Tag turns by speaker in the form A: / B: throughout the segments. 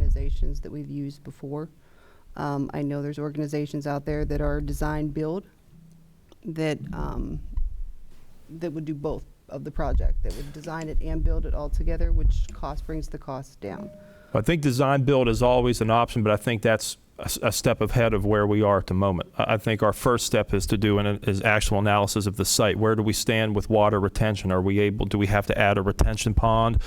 A: organizations that we've used before. Um, I know there's organizations out there that are design build that, um, that would do both of the project, that would design it and build it all together, which cost, brings the cost down.
B: I think design build is always an option, but I think that's a, s- a step ahead of where we are at the moment. I, I think our first step is to do an is actual analysis of the site. Where do we stand with water retention? Are we able? Do we have to add a retention pond?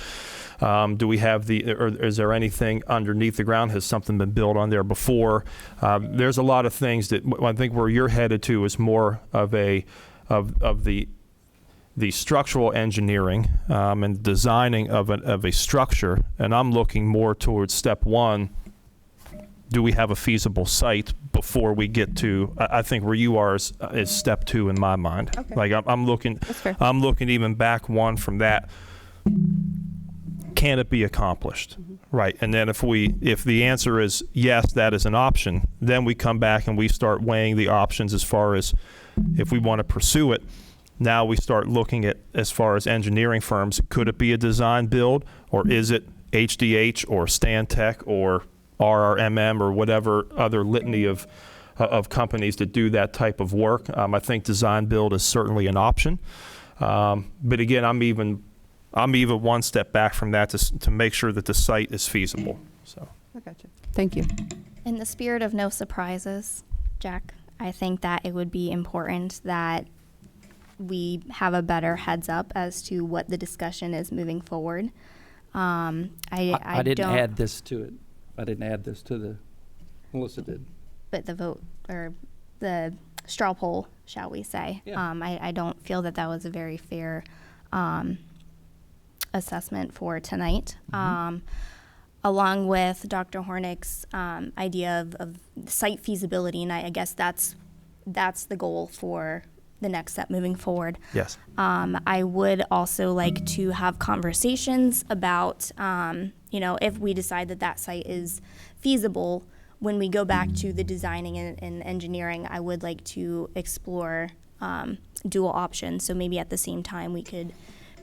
B: Um, do we have the? Or is there anything underneath the ground? Has something been built on there before? Um, there's a lot of things that w- I think where you're headed to is more of a of of the the structural engineering um, and designing of, an, of a structure, and I'm looking more towards step one. Do we have a feasible site before we get to? I, I think where you are is, is step two in my mind.
A: Okay.
B: Like I'm, I'm looking,
A: That's fair.
B: I'm looking even back one from that. Can it be accomplished?
A: Mm-hmm.
B: Right. And then if we if the answer is yes, that is an option, then we come back and we start weighing the options as far as if we want to pursue it. Now we start looking at as far as engineering firms, could it be a design build or is it HDH or Stantec or RRMM or whatever other litany of uh, of companies that do that type of work. Um, I think design build is certainly an option. Um, but again, I'm even I'm even one step back from that to, s- to make sure that the site is feasible. So
A: I gotcha. Thank you.
C: In the spirit of no surprises, Jack, I think that it would be important that we have a better heads up as to what the discussion is moving forward. Um, I, I,
D: I, I didn't
C: don't,
D: add this to it. I didn't add this to the, Melissa did.
C: but the vote or the straw poll, shall we say?
D: Yeah.
C: Um, I, I don't feel that that was a very fair um, assessment for tonight. Um, along with Dr. Hornick's um, idea of, of site feasibility, and I, I guess that's that's the goal for the next step moving forward.
B: yes,
C: Um, I would also like to have conversations about, um, you know, if we decide that that site is feasible, when we go back to the designing and, and engineering, I would like to explore um, dual options. So maybe at the same time, we could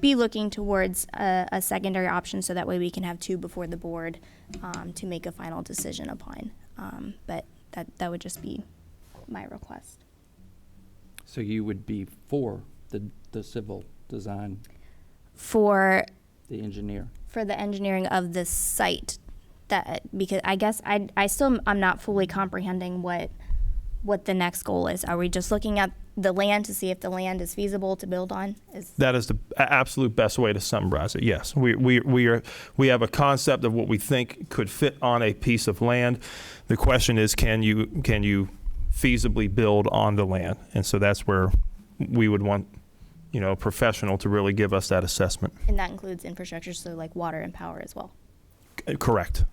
C: be looking towards a, a secondary option so that way we can have two before the board um, to make a final decision upon. Um, but that, that would just be my request.
D: So you would be for the, the civil design,
C: For
D: the engineer.
C: for the engineering of this site that because I guess I I still I'm not fully comprehending what what the next goal is. Are we just looking at the land to see if the land is feasible to build on? Is
B: that is the a- absolute best way to summarize it. Yes, we, we, we are we have a concept of what we think could fit on a piece of land. The question is, can you can you feasibly build on the land? And so that's where we would want you know a professional to really give us that assessment.
C: and that includes infrastructure, so like water and power as well.
B: C- correct.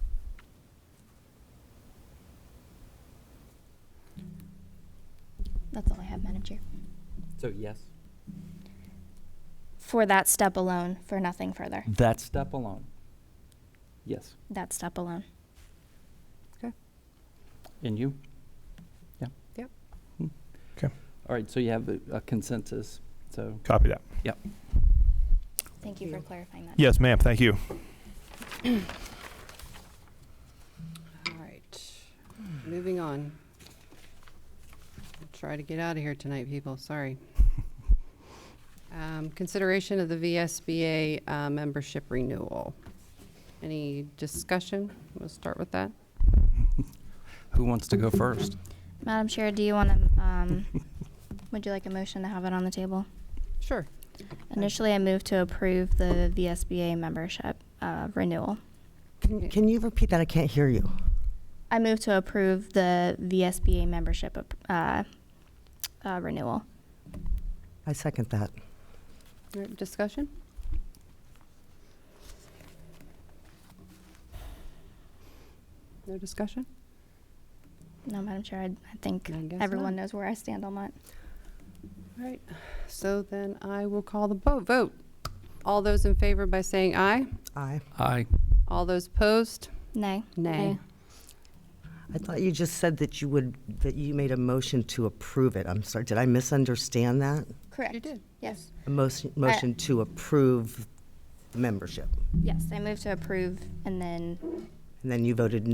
C: That's all I have, Madam Chair.
D: So yes.
C: For that step alone, for nothing further.
D: That step alone. Yes.
C: That step alone.
D: And you? Yeah.
A: Yep.
D: Hmm.
B: Okay.
D: All right, so you have a a consensus, so.
B: Copy that.
C: Thank you for clarifying that.
B: Yes, ma'am. Thank you.
A: All right, moving on. I'll Try to get out of here tonight, people, sorry. Um, Consideration of the VSBA uh, membership renewal. Any discussion? We'll start with that.
D: Who wants to go first?
C: Madam Chair, do you want to, um, would you like a motion to have it on the table?
A: Sure.
C: Initially, I moved to approve the VSBA membership uh, renewal.
A: Okay.
E: Can, can you repeat that? I can't hear you.
C: I move to approve the VSBA membership ap- uh, uh, renewal.
E: I second that.
A: All right, Discussion? No discussion?
C: No, Madam Chair, I, I think
A: I guess
C: everyone knows where I stand on that.
A: All right, so then I will call the bo- vote. All those in favor by saying aye?
E: Aye.
D: Aye.
A: All those opposed?
C: Nay.
A: Nay.
E: I thought you just said that you would, that you made a motion to approve it. I'm sorry, did I misunderstand that?
C: Correct.
A: You did,
C: Yes.
E: A motion, motion to approve the membership.
C: Yes, I move to approve and then
E: And then you voted no.